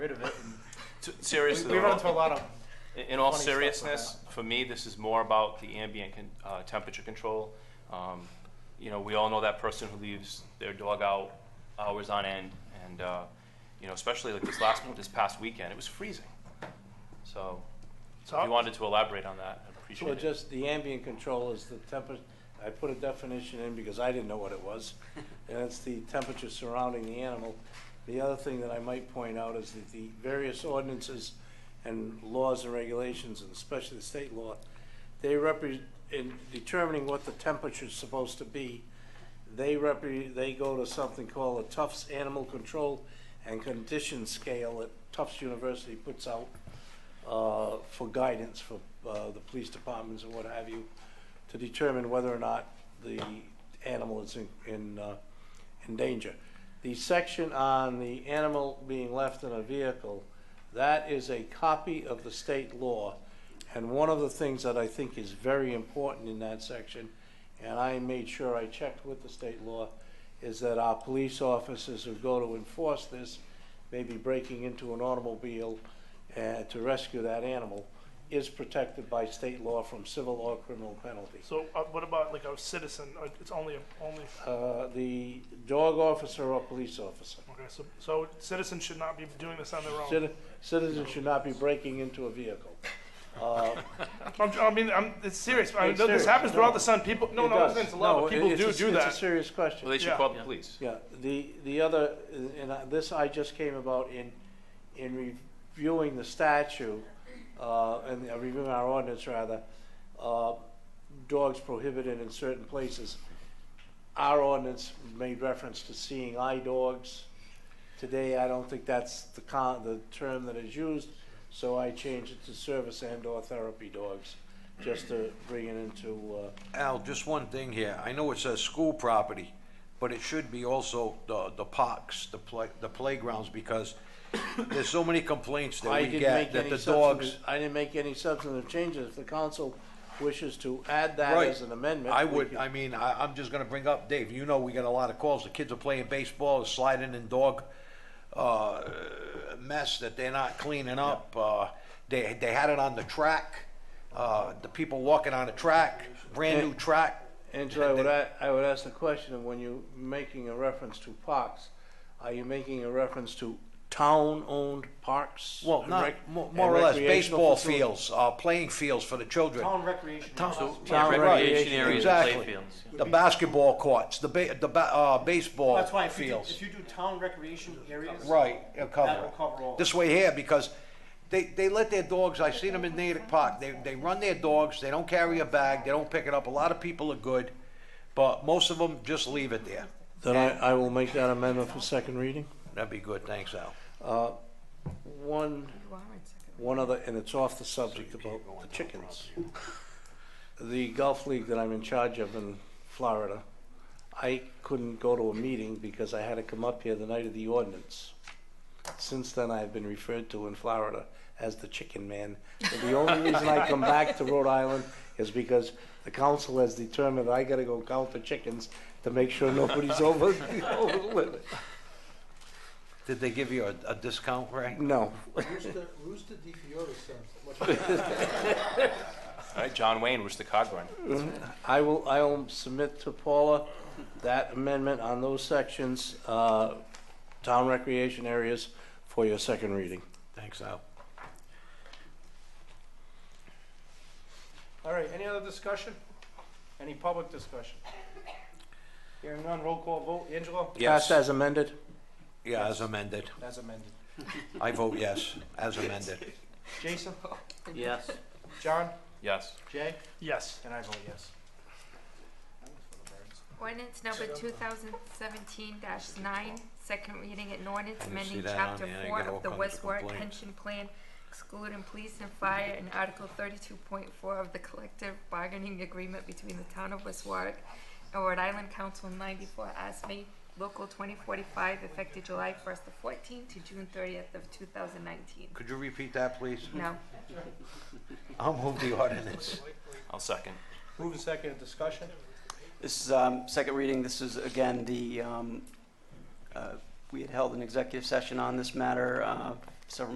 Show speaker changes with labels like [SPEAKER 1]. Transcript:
[SPEAKER 1] T- Seriously,
[SPEAKER 2] We run into a lot of,
[SPEAKER 1] in- in all
[SPEAKER 2] funny stuff like
[SPEAKER 1] seriousness, for me, this is more about the ambient con- uh, temperature control. Um, You know, we all know that person who leaves their dog out hours on end, and, uh, you know, especially like this last, this past weekend, it was freezing. So, so if you wanted to elaborate on that, I'd
[SPEAKER 3] Well,
[SPEAKER 1] appreciate it.
[SPEAKER 3] just the ambient control is the temper, I put a definition in because I didn't know what it was. And it's the temperature surrounding the animal. The other thing that I might point out is that the various ordinances and laws and regulations, and especially the state law, they represent, in determining what the temperature's supposed to be, they repre, they go to something called a Tufts Animal Control and Condition Scale that Tufts University puts out uh, for guidance for uh, the police departments and what have you, to determine whether or not the animal is in, in, uh, in danger. The section on the animal being left in a vehicle, that is a copy of the state law. And one of the things that I think is very important in that section, and I made sure I checked with the state law, is that our police officers who go to enforce this may be breaking into an automobile uh, to rescue that animal is protected by state law from civil or criminal penalties.
[SPEAKER 2] so uh, what about like a citizen, Uh, it's only, a- only,
[SPEAKER 3] Uh, The dog officer or police officer.
[SPEAKER 2] okay, so, so citizens should not be doing this on their own.
[SPEAKER 3] Citi- Citizens should not be breaking into a vehicle. Uh,
[SPEAKER 2] I'm, I mean, I'm, it's serious, I
[SPEAKER 3] It's
[SPEAKER 2] know this
[SPEAKER 3] serious.
[SPEAKER 2] happens
[SPEAKER 3] No.
[SPEAKER 2] throughout the sun, people, no,
[SPEAKER 3] it
[SPEAKER 2] no,
[SPEAKER 3] does.
[SPEAKER 2] it's a lot,
[SPEAKER 3] No,
[SPEAKER 2] but people
[SPEAKER 3] it's a-
[SPEAKER 2] do do
[SPEAKER 3] It's a
[SPEAKER 2] that.
[SPEAKER 3] serious question.
[SPEAKER 1] Well, they should
[SPEAKER 2] Yeah.
[SPEAKER 1] call the police.
[SPEAKER 3] Yeah, the, the other, and I- this I just came about in, in reviewing the statute, uh, and uh, reviewing our ordinance rather, uh, dogs prohibited in certain places. Our ordinance made reference to seeing eye dogs. Today, I don't think that's the con, the term that is used, so I changed it to service and or therapy dogs, just to bring it into, uh,
[SPEAKER 4] Al, just one thing here. I know it says school property, but it should be also the, the parks, the play, the playgrounds, because there's so many complaints that
[SPEAKER 3] I
[SPEAKER 4] we
[SPEAKER 3] didn't
[SPEAKER 4] get
[SPEAKER 3] make
[SPEAKER 4] that
[SPEAKER 3] any
[SPEAKER 4] the dogs.
[SPEAKER 3] substantive- I didn't make any substantive changes. If the council wishes to add that
[SPEAKER 4] Right.
[SPEAKER 3] as an amendment.
[SPEAKER 4] I
[SPEAKER 3] we
[SPEAKER 4] would,
[SPEAKER 3] can-
[SPEAKER 4] I mean, I, I'm just gonna bring up, Dave, you know, we get a lot of calls. The kids are playing baseball, sliding in dog, uh, mess that they're not cleaning up. Uh, they, they had it on the track. Uh, the people walking on the track, brand new track.
[SPEAKER 3] Angela, I would, a- I would ask the question of when you're making a reference to parks, are you making a reference to town-owned parks?
[SPEAKER 4] Well,
[SPEAKER 3] and
[SPEAKER 4] not,
[SPEAKER 3] rec-
[SPEAKER 4] mo-
[SPEAKER 3] and
[SPEAKER 4] more or less,
[SPEAKER 3] recreational
[SPEAKER 4] baseball
[SPEAKER 3] facilities?
[SPEAKER 4] fields, uh, playing fields for the children.
[SPEAKER 5] Town recreation.
[SPEAKER 4] Town-
[SPEAKER 3] Town
[SPEAKER 4] right,
[SPEAKER 3] recreation
[SPEAKER 4] areas
[SPEAKER 1] and
[SPEAKER 4] exactly.
[SPEAKER 1] playfields.
[SPEAKER 4] The basketball courts, the ba, the ba, uh, baseball
[SPEAKER 5] That's why if you, do-
[SPEAKER 4] fields.
[SPEAKER 5] if you do town recreation areas.
[SPEAKER 4] Right, it'll
[SPEAKER 5] That
[SPEAKER 4] cover
[SPEAKER 5] will
[SPEAKER 4] it.
[SPEAKER 5] cover all.
[SPEAKER 4] This way here, because they, they let their dogs, I seen them in Natick Park, they, they run their dogs, they don't carry a bag, they don't pick it up. A lot of people are good, but most of them just leave it there.
[SPEAKER 3] Then I, I will make that amendment for second reading. Uh,
[SPEAKER 4] That'd be good, thanks, Al.
[SPEAKER 3] One, one other, and it's off the subject about the chickens. The golf league that I'm in charge of in Florida, I couldn't go to a meeting because I had to come up here the night of the ordinance. Since then, I've been referred to in Florida as the chicken man. And the only reason I come back to Rhode Island is because the council has determined I gotta go count the chickens to make sure nobody's over, over.
[SPEAKER 4] Did they give you a, a discount, Ray?
[SPEAKER 3] No,
[SPEAKER 6] Rooster, Rooster Di Fiore sounds much
[SPEAKER 1] All right, John Wayne, where's the cog run?
[SPEAKER 3] I will, I will submit to Paula that amendment on those sections, uh, town recreation areas for your second reading.
[SPEAKER 4] Thanks, Al.
[SPEAKER 2] All right, any other discussion? Any public discussion? Hearing none, roll call vote, Angelo?
[SPEAKER 4] Yes.
[SPEAKER 3] Passed as amended?
[SPEAKER 4] Yeah, as amended.
[SPEAKER 2] As amended.
[SPEAKER 4] I vote yes, as amended.
[SPEAKER 2] Jason?
[SPEAKER 5] Yes.
[SPEAKER 2] John?
[SPEAKER 1] Yes.
[SPEAKER 2] Jay? Yes. And I vote yes.
[SPEAKER 7] Ordinance number two thousand seventeen nine, second reading, an ordinance
[SPEAKER 4] I didn't see
[SPEAKER 7] amending
[SPEAKER 4] that on
[SPEAKER 7] chapter
[SPEAKER 4] there. I
[SPEAKER 7] four
[SPEAKER 4] got all
[SPEAKER 7] of the
[SPEAKER 4] kinds of
[SPEAKER 7] Westward
[SPEAKER 4] complaints.
[SPEAKER 7] Pension Plan excluding police and fire and article thirty-two point four of the collective bargaining agreement between the town of West Warwick and Rhode Island Council ninety-four ASME Local twenty forty-five effective July first of fourteen to June thirtieth of two thousand nineteen.
[SPEAKER 4] Could you repeat that, please?
[SPEAKER 7] Now,
[SPEAKER 4] I'll move the ordinance.
[SPEAKER 1] I'll second.
[SPEAKER 2] Move in second, discussion?
[SPEAKER 5] This is, um, second reading, this is again, the, um, uh, we had held an executive session on this matter, uh,